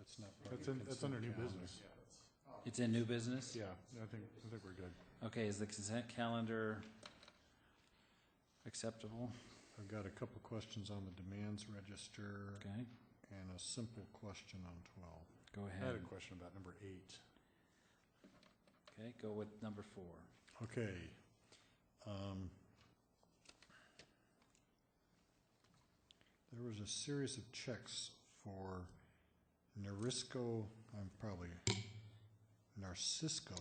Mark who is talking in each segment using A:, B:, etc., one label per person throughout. A: It's not part of
B: That's
A: your
B: in, that's
A: consent
B: under new
A: calendar.
B: business.
C: It's in new business?
B: Yeah, I think, I think we're good.
C: Okay, is the consent calendar acceptable?
B: I've got a couple questions on the demands register
C: Okay,
B: and a simple question on twelve.
C: go
A: I had
C: ahead.
A: a question about number eight.
C: Okay, go with number four.
B: Okay. Um, There was a series of checks for Narisco, I'm probably, Narcisco,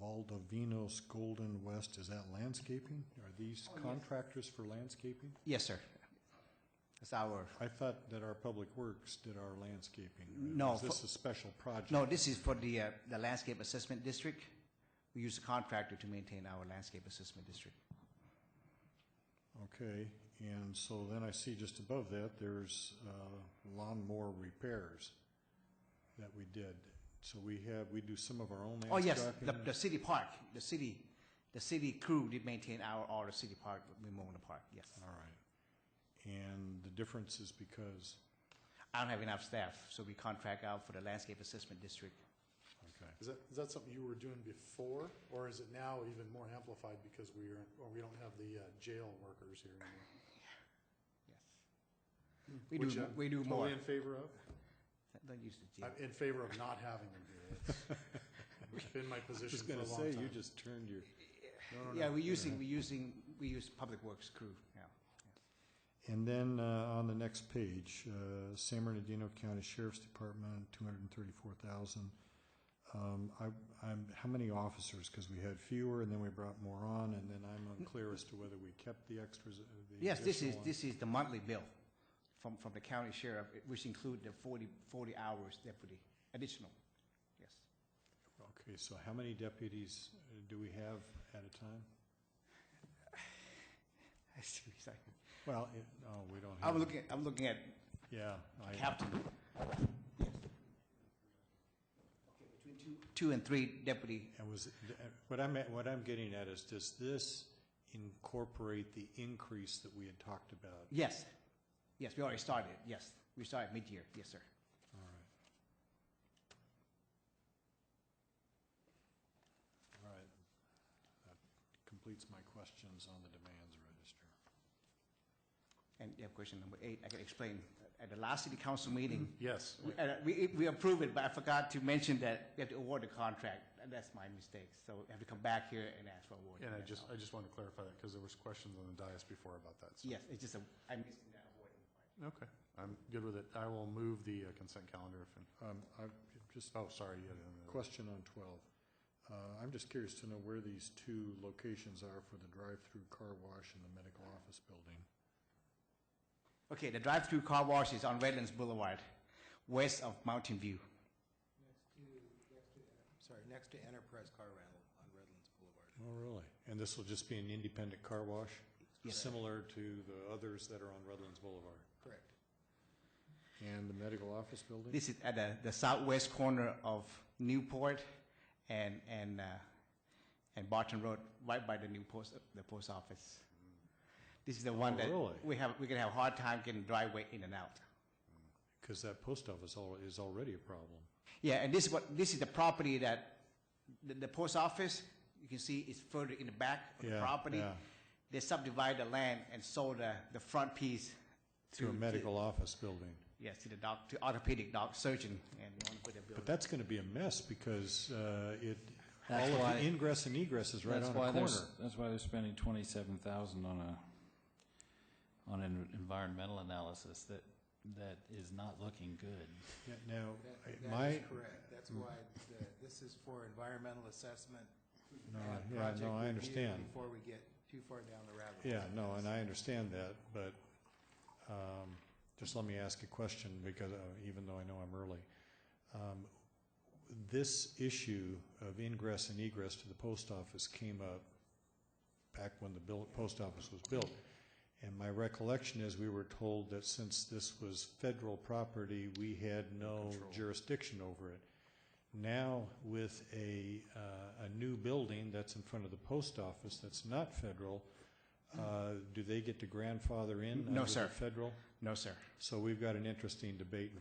B: Valdovinos, Golden West, is that landscaping? Are
D: Oh,
B: these contractors for landscaping?
D: Yes, sir. It's our,
B: I thought that our Public Works did our landscaping. or
D: No,
B: Is this
D: for-
B: a special project?
D: no, this is for the, uh, the landscape assessment district. We use a contractor to maintain our landscape assessment district.
B: Okay, and so then I see just above that, there's uh, lawnmower repairs that we did. So we have, we do some of our own
D: Oh, yes, the,
B: landscaping.
D: the city park, the city, the city crew did maintain our, all the city park, we mow in the park, yes.
B: All right. And the difference is because,
D: I don't have enough staff, so we contract out for the landscape assessment district.
B: okay,
E: Is that, is that something you were doing before, or is it now even more amplified because we are, or we don't have the uh, jail workers here anymore?
D: We do,
E: Which oh,
D: mo-
E: I'm
D: we do more.
E: Totally in favor of,
D: Don't use the G.
E: I'm in favor of not having them do it. It's Been my
B: I
E: position
B: was
E: for a
B: gonna
E: long
B: say, you
E: time.
B: just turned your, no, no,
D: Yeah,
B: no.
D: we're using, we're using, we use public works crew now.
B: And then uh, on the next page, uh, San Bernardino County Sheriff's Department, two hundred and thirty-four thousand. Um, I, I'm, how many officers? Because we had fewer and then we brought more on and then I'm unclear as to whether we kept the extras. uh, the
D: Yes, this is,
B: additional
D: this is the monthly bill from, from the county sheriff, which include the 40 40 hours deputy, additional, yes.
B: on. Okay, so how many deputies uh, do we have at a time?
D: I see what you're saying.
B: Well, it, oh, we don't have.
D: I'm looking, I'm looking at
B: Yeah, I,
D: captain. Two and three deputy,
B: I was, uh, what I'm, at- what I'm getting at is, does this incorporate the increase that we had talked about?
D: yes, yes, we already started, yes, we started mid-year, yes, sir.
B: All right. All right. That completes my questions on the demands register.
D: And you have question number eight, I can explain, at the last city council meeting,
E: Yes,
D: we- uh, we, we approved it, but I forgot to mention that we have to award the contract, and that's my mistake, so I have to come back here and ask for award.
E: and I
D: that's
E: just,
D: all.
E: I just wanted to clarify that, because there was questions on the dais before about that. so-
D: Yes, it's just a, I missed that award.
E: Okay, I'm good with it. I will move the uh, consent calendar if,
B: Um, I, just
E: oh, sorry, you had
B: a
E: another.
B: question on twelve. Uh, I'm just curious to know where these two locations are for the drive-through car wash and the medical office building.
D: Okay, the drive-through car wash is on Redlands Boulevard, west of Mountain View.
F: Sorry, next to Enterprise Car Rental on Redlands Boulevard.
B: Oh, really? And this will just be an independent car wash?
D: Yes.
B: Similar to the others that are on Redlands Boulevard?
F: Correct.
B: And the medical office building?
D: This is at the, the southwest corner of Newport and, and, uh, and Barton Road, right by the new post, the post office. This is the one
B: Oh,
D: that
B: really?
D: we have, we're gonna have a hard time getting driveway in and out.
B: Because that post office al- is already a problem.
D: Yeah, and this is what, this is the property that, the, the post office, you can see it's further in the back of the
B: Yeah,
D: property.
B: yeah.
D: They subdivided the land and sold the, the front piece to.
B: To a medical office building.
D: Yes, to the doc, to orthopedic doc surgeon, and they want to put a building.
B: But that's going to be a mess because uh, it, all
C: That's
B: of
C: why-
B: the ingress and egress is right
C: That's
B: on
C: why
B: a
C: they're
B: corner.
C: s- That's why they're spending twenty-seven thousand on a, on an environmental analysis that, that is not looking good.
B: Yeah, Now,
F: That-
B: I-
F: That
B: my,
F: is correct. That's why the- this is for environmental assessment.
B: No,
F: and
B: yeah,
F: project
B: no, I
F: review
B: understand.
F: Before we get too far down the rabbit hole.
B: yeah, no, and I understand that, but um, just let me ask a question because uh, even though I know I'm early. Um, This issue of ingress and egress to the post office came up back when the bill, post office was built. And my recollection is we were told that since this was federal property, we had no jurisdiction over it. Now with a, uh, a new building that's in front of the post office that's not federal, uh, do they get to grandfather in?
D: No,
B: under the
D: sir.
B: Federal?
D: No, sir.
B: So we've got an interesting debate in